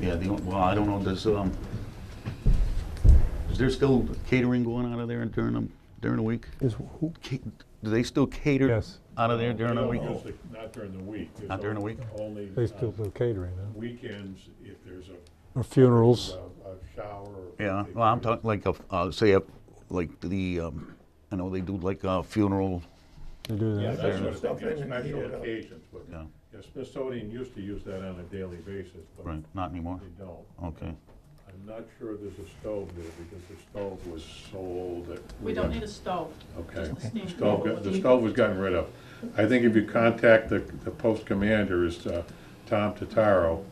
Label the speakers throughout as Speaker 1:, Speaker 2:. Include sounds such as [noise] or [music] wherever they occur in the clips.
Speaker 1: Yeah, the, on- well, I don't know, does, um, is there still catering going out of there during the, during the week?
Speaker 2: Is who?
Speaker 1: Ca- Do they still cater?
Speaker 2: Yes.
Speaker 1: Out of there during the
Speaker 3: No,
Speaker 1: week?
Speaker 3: just the- Not during the week. There's
Speaker 1: Not during the week?
Speaker 3: Only
Speaker 2: They
Speaker 3: uh,
Speaker 2: still do catering, huh?
Speaker 3: weekends, if there's a,
Speaker 2: Or funerals.
Speaker 3: a a shower. or-
Speaker 1: Yeah, well, I'm talking like a, uh, say, a- like the, um, I know they do like a funeral,
Speaker 2: They do
Speaker 3: Yeah,
Speaker 2: that.
Speaker 3: that's
Speaker 1: Fair
Speaker 3: what I'm
Speaker 4: Stuff in
Speaker 3: thinking,
Speaker 4: and heat
Speaker 3: special
Speaker 4: it up.
Speaker 3: occasions, but,
Speaker 1: Yeah.
Speaker 3: yeah, Smithsonian used to use that on a daily basis, but
Speaker 1: right, not anymore?
Speaker 3: they don't.
Speaker 1: Okay.
Speaker 3: I'm not sure there's a stove there, because the stove was sold at.
Speaker 5: We don't need a stove.
Speaker 3: Okay,
Speaker 5: Just a steam
Speaker 3: The stove, got- the
Speaker 5: cooker.
Speaker 3: stove was gotten rid of. I think if you contact the, the post commander is uh, Tom Tataro,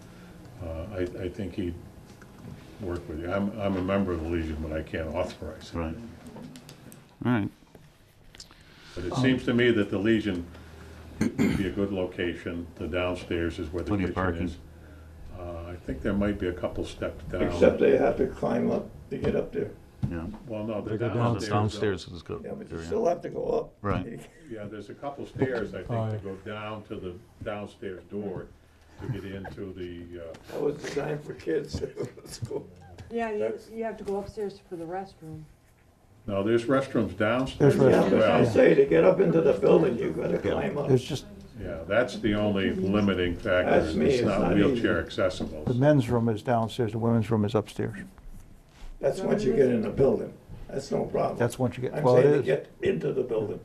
Speaker 3: uh, I, I think he'd work with you. I'm, I'm a member of the Legion, but I can't authorize it.
Speaker 1: Right. All right,
Speaker 3: But it seems to me that the Legion would be a good location. The downstairs is where the
Speaker 1: Plenty of
Speaker 3: kitchen
Speaker 1: parking.
Speaker 3: is. Uh, I think there might be a couple steps down.
Speaker 4: Except they have to climb up to get up there.
Speaker 1: yeah.
Speaker 3: Well, no, the
Speaker 2: They go down-
Speaker 1: Well, the
Speaker 3: downstairs.
Speaker 1: downstairs is good.
Speaker 4: Yeah, but you
Speaker 1: area.
Speaker 4: still have to go up.
Speaker 1: Right.
Speaker 3: Yeah, there's a couple stairs, I think,
Speaker 2: Aye.
Speaker 3: that go down to the downstairs door to get into the, uh,
Speaker 4: [laughs] That was designed for kids. [laughs] It's cool.
Speaker 6: Yeah, you,
Speaker 3: That's-
Speaker 6: you have to go upstairs for the restroom.
Speaker 3: no, there's restrooms downstairs.
Speaker 2: There's
Speaker 4: Yeah,
Speaker 3: as
Speaker 2: restrooms,
Speaker 4: but I
Speaker 3: well.
Speaker 4: say, to get up into the building, you gotta climb up.
Speaker 7: There's just,
Speaker 3: Yeah, that's the only limiting factor.
Speaker 4: That's
Speaker 3: is
Speaker 4: me,
Speaker 3: It's
Speaker 4: it's
Speaker 3: not
Speaker 4: not easy.
Speaker 3: wheelchair accessible.
Speaker 7: the men's room is downstairs, the women's room is upstairs.
Speaker 4: That's once you get in the building. That's no problem.
Speaker 7: That's once you get,
Speaker 4: I'm
Speaker 7: well, it
Speaker 4: saying to
Speaker 7: is.
Speaker 4: get into the building.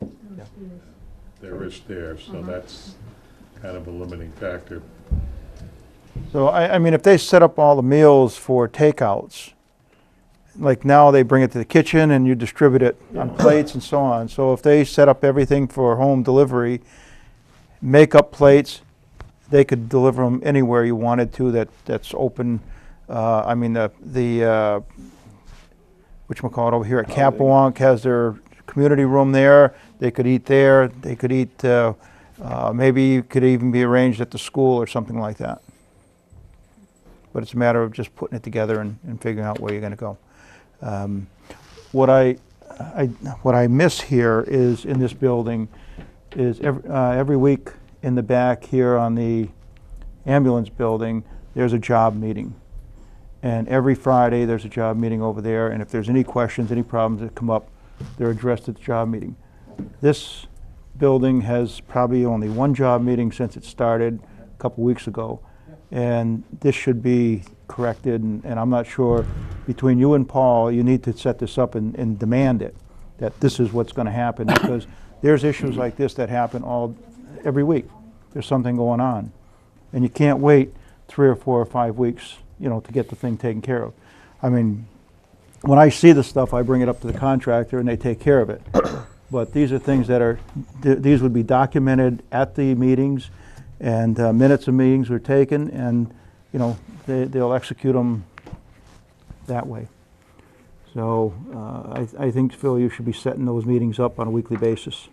Speaker 3: There is stairs,
Speaker 4: Uh-huh.
Speaker 3: so that's kind of a limiting factor.
Speaker 7: So I, I mean, if they set up all the meals for takeouts, like now they bring it to the kitchen and you distribute it on plates and so on. So if they set up everything for home delivery, make up plates, they could deliver them anywhere you wanted to that, that's open. Uh, I mean, the, the, uh, whatchamacallit over here at
Speaker 4: Holiday.
Speaker 7: Capewalk has their community room there. They could eat there, they could eat, uh, uh, maybe it could even be arranged at the school or something like that. But it's a matter of just putting it together and, and figuring out where you're gonna go. Um, What I, I, what I miss here is, in this building, is every, uh, every week in the back here on the ambulance building, there's a job meeting. And every Friday, there's a job meeting over there, and if there's any questions, any problems that come up, they're addressed at the job meeting. This building has probably only one job meeting since it started a couple weeks ago. And this should be corrected, and, and I'm not sure, between you and Paul, you need to set this up and, and demand it, that this is what's gonna happen, because there's issues like this that happen all, every week. There's something going on. And you can't wait three or four or five weeks, you know, to get the thing taken care of. I mean, when I see this stuff, I bring it up to the contractor and they take care of it. But these are things that are, th- these would be documented at the meetings and uh, minutes of meetings were taken and, you know, they, they'll execute them that way. So uh, I, I think, Phil, you should be setting those meetings up on a weekly basis.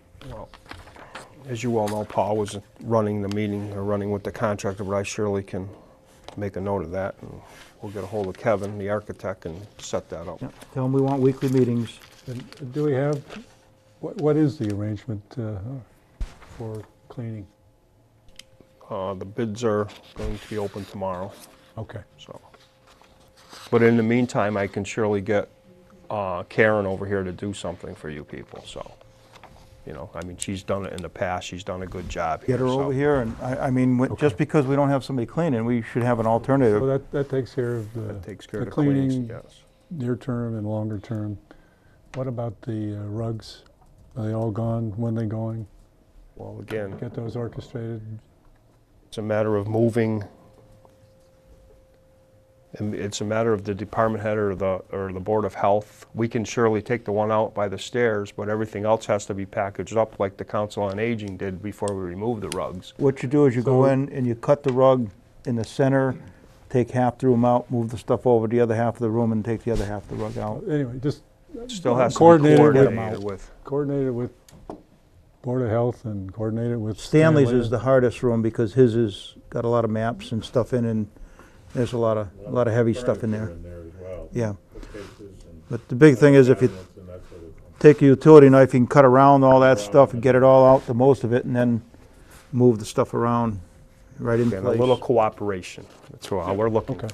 Speaker 8: As you all know, Paul was running the meeting, or running with the contractor, but I surely can make a note of that. and We'll get a hold of Kevin, the architect, and set that up.
Speaker 7: Yep. Tell them we want weekly meetings.
Speaker 2: And do we have, what, what is the arrangement uh, for cleaning?
Speaker 8: Uh, The bids are going to be open tomorrow,
Speaker 2: Okay.
Speaker 8: so. But in the meantime, I can surely get uh, Karen over here to do something for you people, so. You know, I mean, she's done it in the past, she's done a good job here.
Speaker 7: Get her
Speaker 8: so-
Speaker 7: over here and, I, I mean, wh- just because we don't have somebody cleaning, we should have an
Speaker 2: Well,
Speaker 7: alternative.
Speaker 2: that, that takes care of the.
Speaker 8: Takes care of the cleaning, yes.
Speaker 2: Near term and longer term. What about the uh, rugs? Are they all gone? When they going?
Speaker 8: Well, again.
Speaker 2: Get those orchestrated?
Speaker 8: It's a matter of moving, and it's a matter of the department head or the, or the Board of Health. We can surely take the one out by the stairs, but everything else has to be packaged up like the Council on Aging did before we removed the rugs.
Speaker 7: What you do is you go in and you cut the rug in the center, take half the room out, move the stuff over to the other half of the room and take the other half of the rug out.
Speaker 2: Anyway, just
Speaker 8: Still has to be
Speaker 2: Coordinated with-
Speaker 8: coordinated with.
Speaker 2: coordinate it with Board of Health and coordinate it with.
Speaker 7: Stanley's
Speaker 2: Stanley.
Speaker 7: is the hardest room because his has got a lot of maps and stuff in and there's a lot of, a lot of heavy stuff in
Speaker 3: Furniture
Speaker 7: there.
Speaker 3: as well.
Speaker 7: Yeah,
Speaker 3: Bookcases and
Speaker 7: but the big thing is if you
Speaker 3: cabinets and that sort of thing.
Speaker 7: take a utility knife, you can cut around all that stuff and get it all out, the most of it, and then move the stuff around right in
Speaker 8: And
Speaker 7: place.
Speaker 8: a little cooperation, that's all we're looking
Speaker 2: Okay.
Speaker 8: for.